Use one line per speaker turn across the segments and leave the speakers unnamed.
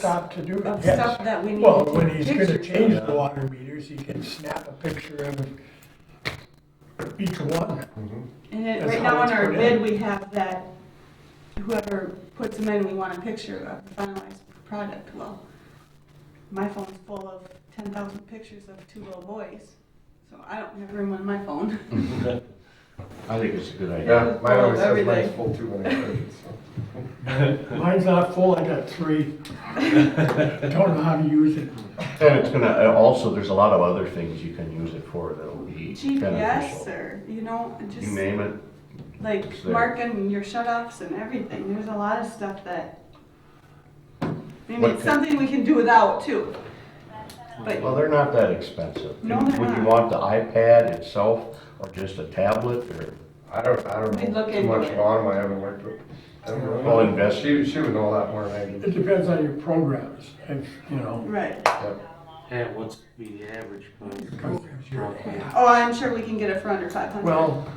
stop to do
of
it,
stuff
yes.
that we need
Well,
to
when he's
picture.
gonna change the water meters, he can snap a picture of each one.
And then,
That's
right
how
now on
it's
our
put
bid,
in.
we have that whoever puts them in, we want a picture of the finalized product. Well, my phone's full of ten thousand pictures of two little boys, so I don't have room on my phone.
I think it's a good idea.
Yeah, mine
Full of
always says mine's
everything.
full too when I charge it, so.
Mine's not full, I got three. Don't know how to use it.
And it's gonna, uh, also, there's a lot of other things you can use it for that'll be
GPS
beneficial.
or, you know, just
You name it,
like
it's there.
marking your shut-offs and everything. There's a lot of stuff that, I mean,
What
it's
can-
something we can do without too. But
well, they're not that expensive.
No, they're
Would you
not.
want the iPad itself, or just a tablet, or,
I don't, I
We
don't know
look
too much
into it.
about 'em, I haven't worked with. I don't know.
Well, invest-
She, she would know a lot more than I do.
It depends on your programs, if, you know.
Right.
At what's be the average price?
Oh, I'm sure we can get it for under five hundred.
Well,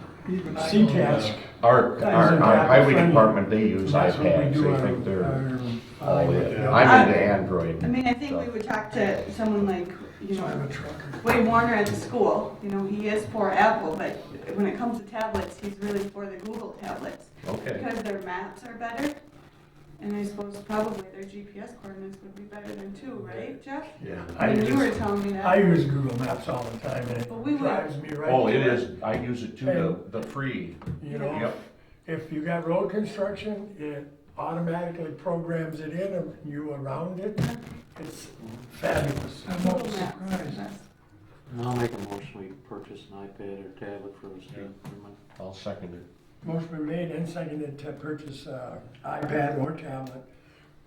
C-Task.
our, our, our highway department, they use
that's what we
iPads,
do
they
our-
think they're
our-
all in.
Yeah.
I'm into
I
Android.
mean, I think we would talk to someone like, you
I'm
know,
a trucker.
Wade Warner at the school. You know, he is for Apple, but when it comes to tablets, he's really for the Google tablets
Okay,
because their maps are better. And I suppose probably their GPS coordinates would be better than two, right, Jeff?
yeah.
I
I mean, you were
use,
telling me
I
that.
use Google Maps all the time, and
But we
it
would-
drives me right.
Oh, it
to
is, I use it too, the, the free,
You know,
Yep.
if you got road construction, it automatically programs it in and you around it. It's fabulous.
Google Maps are the best.
I'll make a motion, we purchase an iPad or tablet for us. to-
I'll second it.
Motion been made and seconded to purchase uh, iPad or tablet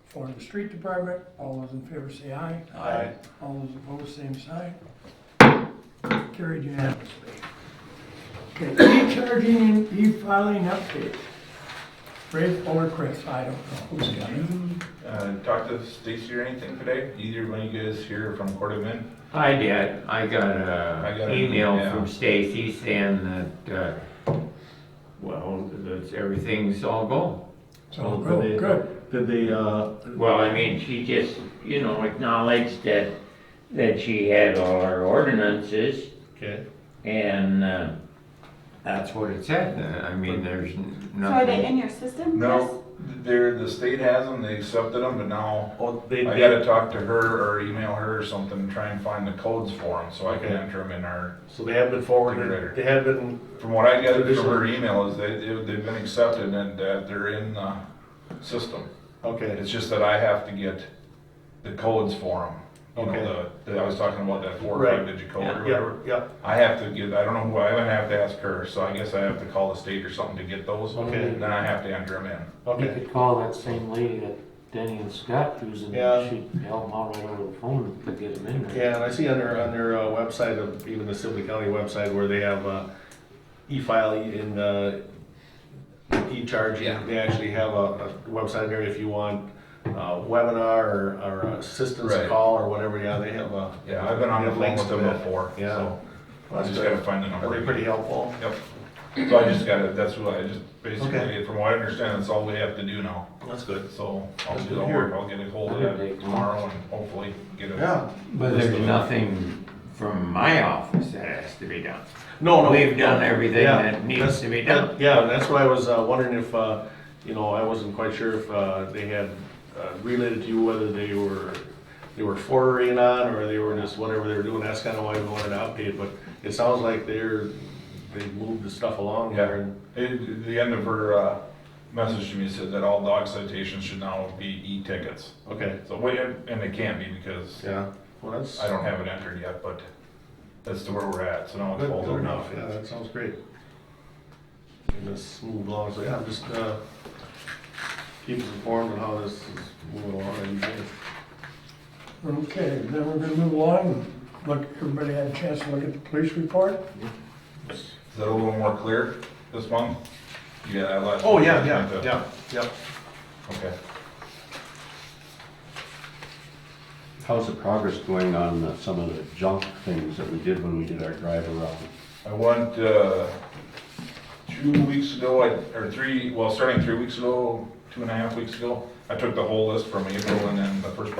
for the street department. All those in favor say aye.
Aye.
All those opposed, same sign. Carried unanimously. Okay, e-charging and e-filing update. Ray or Chris, I don't know who's got it.
Uh, talk to Stacy or anything today? Either one of you guys here from Court of Men?
I did. I got
I got
a
an
email
email.
from Stacy saying that, uh, well, that everything's all go.
So, good, good.
Did they, uh,
Well, I mean, she just, you know, acknowledged that, that she had all our ordinances
okay.
and, uh, that's what it said. Uh, I mean, there's n-
So are they
nothing.
in your system?
No, they're, the state has them, they accepted them, but now
Oh,
I
they,
gotta talk to her or email her or something, and try and find the codes for them, so I can enter them in our,
So they have been
forwarded-
they have been.
from what I gathered from her email is they, they- they've been accepted and uh, they're in the system.
Okay.
It's just that I have to get the codes for them, you know, the, that I was talking about that four or
Right.
five digit code or whatever.
yep.
I have to get, I don't know who, I would have to ask her, so I guess I have to call the state or something to get those.
Okay.
Then I have to enter them in.
you could call that same lady that Denny and Scott using,
Yeah.
she'd help them out right over the phone to get them in there.
Yeah, and I see on their, on their uh, website, of even the Sibley County website, where they have uh, e-file and uh, e-charge.
Yeah.
They actually have a a website there if you want uh, webinar or- or uh, assistance
Right.
call or whatever, yeah, they have a.
Yeah, I've been on the phone
links
with
to
them
that.
before,
Yeah.
so I just gotta find the number.
Are they pretty helpful?
Yep. So I just gotta, that's what I just, basically,
Okay.
from what I understand, that's all we have to do now.
That's good.
So I'll
That's
do
good
the
to
work,
hear.
I'll get a hold of that tomorrow and hopefully get it.
Yeah.
But there's nothing from my office that has to be done.
Oh, No, no.
We've done everything
Yeah,
that needs
that's-
to be done.
Yeah, and that's why I was uh, wondering if, uh, you know, I wasn't quite sure if uh, they had uh, related to you whether they were, they were forwarding on or they were just whatever they were doing. That's kind of why we wanted an update, but it sounds like they're, they moved the stuff along
Yeah.
there. and-
It- The end of her, uh, message to me said that all dog citations should now be e-tickets.
Okay,
So, wait, and they can't be because
yeah. Well, that's.
I don't have it entered yet, but that's to where we're at, so now it's
Good,
all
good enough,
enough.
yeah, that sounds great. And this move along, so yeah, just, uh, keep us informed on how this is moving along and
Okay, then we're gonna move along. Look, everybody had a chance to look at the police report?
Is that a little more clear this month? Yeah, I last.
Oh, yeah, yeah, yeah, yeah.
Okay.
How's the progress going on uh, some of the junk things that we did when we did our drive around?
I went, uh, two weeks ago, I- or three, well, starting three weeks ago, two and a half weeks ago, I took the whole list from April and then the first part